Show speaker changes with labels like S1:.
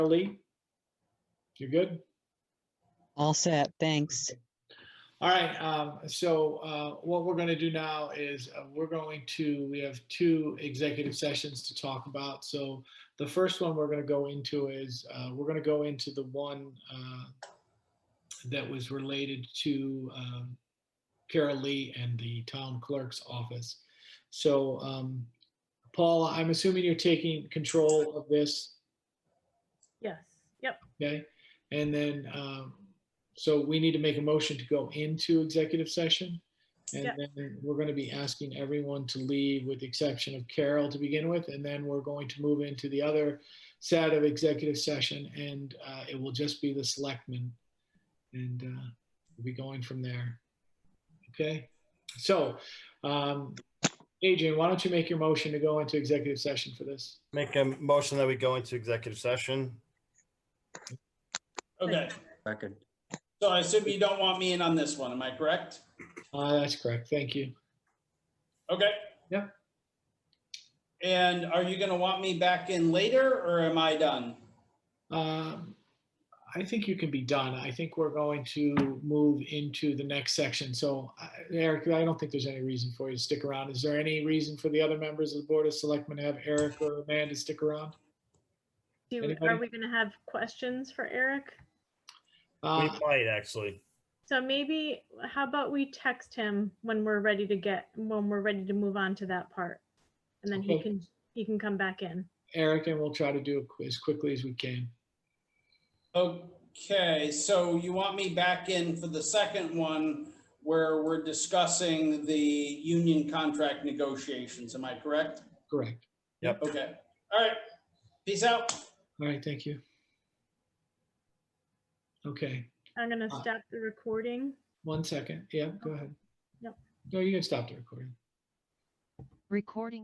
S1: Lee? You good?
S2: All set, thanks.
S1: All right, um, so, uh, what we're gonna do now is, uh, we're going to, we have two executive sessions to talk about. So the first one we're gonna go into is, uh, we're gonna go into the one, uh, that was related to, um, Carol Lee and the town clerk's office. So, um, Paula, I'm assuming you're taking control of this,
S3: Yes, yep,
S1: okay? And then, um, so we need to make a motion to go into executive session. And
S3: Yeah.
S1: then we're going to be asking everyone to leave with the exception of Carol to begin with. And then we're going to move into the other set of executive session and, uh, it will just be the selectmen. And, uh, we'll be going from there. Okay, so, um, Adrian, why don't you make your motion to go into executive session for this?
S4: Make a motion that we go into executive session.
S5: Okay,
S6: Second.
S5: so I assume you don't want me in on this one, am I correct?
S1: Uh, that's correct. Thank you.
S5: Okay.
S1: Yeah.
S5: And are you gonna want me back in later, or am I done?
S1: Um, I think you can be done. I think we're going to move into the next section. So I- Eric, I don't think there's any reason for you to stick around. Is there any reason for the other members of the Board of Selectmen to have Eric or Amanda stick around?
S3: do,
S1: Anybody?
S3: are we gonna have questions for Eric?
S4: We
S1: Uh,
S4: might actually.
S3: So maybe, how about we text him when we're ready to get, when we're ready to move on to that part? And then he
S1: Okay.
S3: can, he can come back in.
S1: Eric, and we'll try to do it qu- as quickly as we can.
S5: Okay, so you want me back in for the second one, where we're discussing the union contract negotiations, am I correct?
S1: Correct.
S5: Okay, all right, peace out.
S1: All right, thank you. Okay,
S3: I'm gonna
S1: Ah.
S3: stop the recording.
S1: one second. Yeah, go ahead.
S3: Nope.
S1: No, you can stop the recording.
S7: Recording